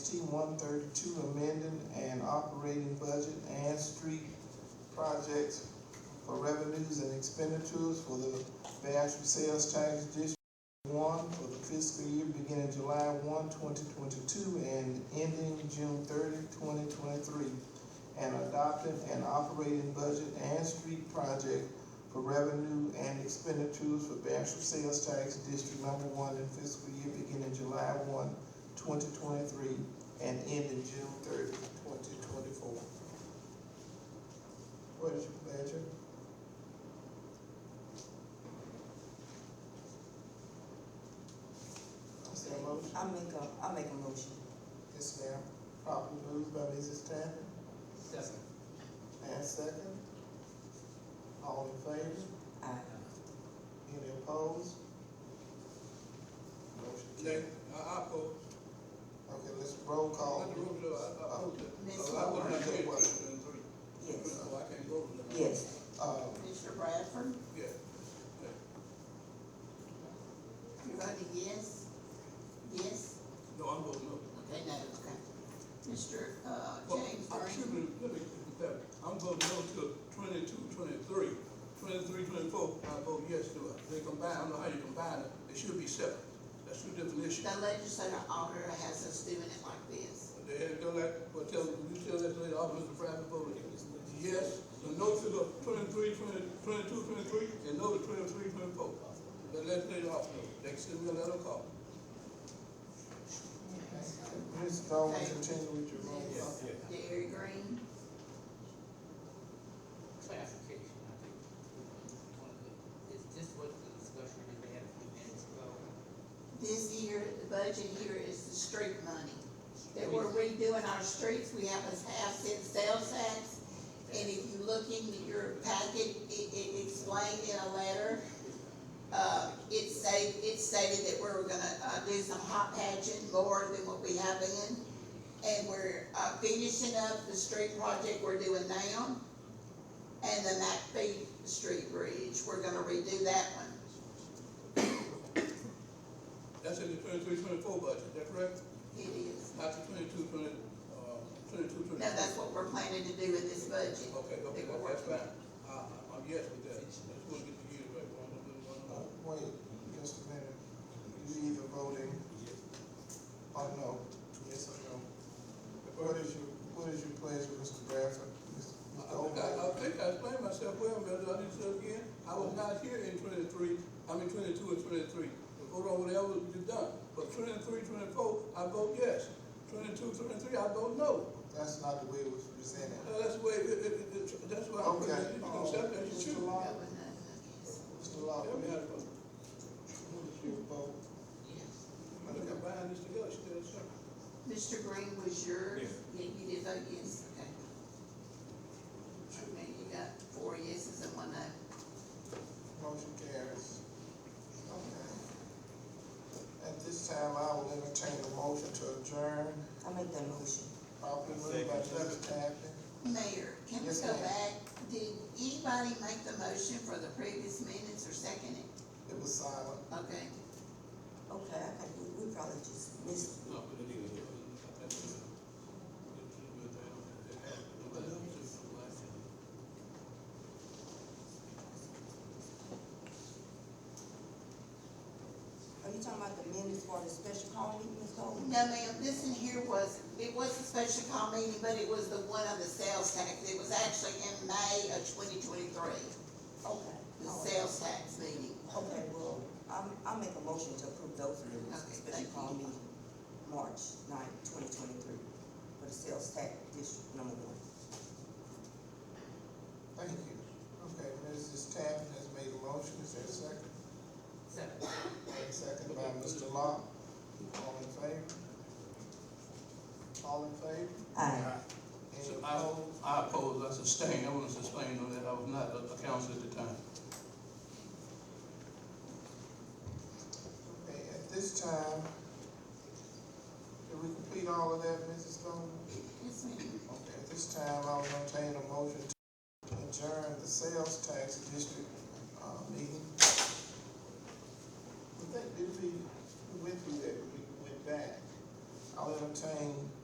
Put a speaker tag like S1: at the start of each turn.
S1: one thirty-two, amending and operating budget and street projects for revenues and expenditures for the Bastrop Sales Tax District One for the fiscal year beginning July 1, 2022, and ending June 30, 2023, and adopting an operating budget and street project for revenue and expenditures for Bastrop Sales Tax District Number One in fiscal year beginning July 1, 2023, and ending June 30, 2024. What is your pleasure? Is there a motion?
S2: I make a, I make a motion.
S1: Yes, ma'am. Properly moved by Mrs. Tanner,
S3: Second.
S1: and second. All in favor?
S2: Aye.
S1: Any opposed? Motion
S3: Nay,
S1: carried.
S3: I, I oppose.
S1: Okay, let's roll call. Uh,
S3: Let the room know, I, I oppose it. So I
S4: uh,
S3: would not take question three,
S2: Yes,
S3: so I can't go to the.
S2: yes.
S1: Um,
S4: Commissioner Bradford,
S3: Yeah.
S4: you voted yes? Yes?
S3: No, I'm voting no.
S4: Okay, no, okay. Mr. uh,
S3: Well,
S4: James
S3: I'm
S4: Green,
S3: sure, let me, let me- I'm voting no to twenty-two, twenty-three, twenty-three, twenty-four, I vote yes to it. They combine, I don't know how you combine it, they should be separate. That's two different issues.
S4: the legislative auditor has us doing it like this.
S3: They had to go like, well, tell, you tell that lady, Officer Bradford voted yes, the no to the twenty-three, twenty, twenty-two, twenty-three, and no to twenty-three, twenty-four. The legislative officer, they send me a letter call.
S1: Ms. Goldman, continue with your roll call.
S3: Yeah.
S4: Gary Green,
S5: clarification, I think, one of the, is this what the discussion that they had a few minutes ago?
S4: this year, the budget here is the street money. That we're redoing our streets, we have a half cent sales tax. And if you look in your packet, it, it explained in a letter, uh, it say, it stated that we were gonna, uh, do some hot patching more than what we have been. And we're, uh, finishing up the street project we're doing now. And the McPhee Street Bridge, we're gonna redo that one.
S3: That's in the twenty-three, twenty-four budget, is that correct?
S4: It is.
S3: Not the twenty-two, twenty, uh, twenty-two,
S4: No,
S3: twenty-four.
S4: that's what we're planning to do with this budget.
S3: Okay, okay,
S4: That we're
S3: that's
S4: working on.
S3: fine. I, I- I'm yes with that. I just wanna get the years right, one, one, one,
S1: Uh,
S3: one.
S1: Wait, just a minute. You either voting or Oh, no? Yes or no? What is your, what is your pleasure, Mr. Bradford? Ms.
S3: I think I, Uh, I
S1: Goldman?
S3: think I explained myself well, but I didn't say it again, I was not here in twenty-three, I mean twenty-two and twenty-three. The vote on whatever you done, but 23, 24, I vote yes, 22, 23, I vote no.
S1: That's not the way it was presented.
S3: Now, that's the way, it, it, it- it- that's why I'm,
S1: Okay.
S3: you can accept that, you
S1: Mr.
S3: choose.
S1: Law,
S4: Going up, I guess.
S1: Mr.
S3: Tell
S1: Law,
S3: me how to vote.
S1: what is your vote?
S3: I'm gonna combine this together, she did it separate.
S4: Mr. Green was yours? Yeah. you did vote yes, okay. Okay, you got four yeses and one no.
S1: Motion carries. Okay. At this time, I will entertain a motion to adjourn,
S2: I make that motion.
S1: properly moved by Mrs. Tappan.
S4: Mayor, can we
S1: Yes,
S4: go
S1: ma'am.
S4: back? Did anybody make the motion for the previous minutes or second it?
S1: It was silent.
S4: Okay,
S2: Okay, I got you, we probably just missed.
S3: No, but it is.
S2: Are you talking about the minutes for the special call meeting, Ms. Goldman?
S4: no ma'am, this in here was, it was a special call meeting, but it was the one on the sales tax. It was actually in May of twenty twenty-three,
S2: Okay.
S1: Oh.
S4: the
S2: all right.
S4: sales tax meeting.
S2: Okay, well, I'm, I'll make a motion to approve those minutes,
S4: Okay,
S2: special
S4: thank you.
S2: call meeting, March ninth, twenty twenty-three, for the sales tax district number one.
S1: Thank you. Okay, Mrs. Tappan has made a motion, is there a second?
S5: Second.
S1: And second by Mr. Law. All in favor? All in favor?
S2: Aye.
S1: Any
S3: I,
S1: opposed?
S3: I oppose, I sustain, I want to sustain on that, I was not a a council at the time.
S1: Okay, at this time, did we complete all of that, Mrs. Goldman?
S4: Yes, ma'am.
S1: Okay, at this time, I will entertain a motion to adjourn the sales tax district, uh, meeting. We think, did we, we went through that, we went back. I'll entertain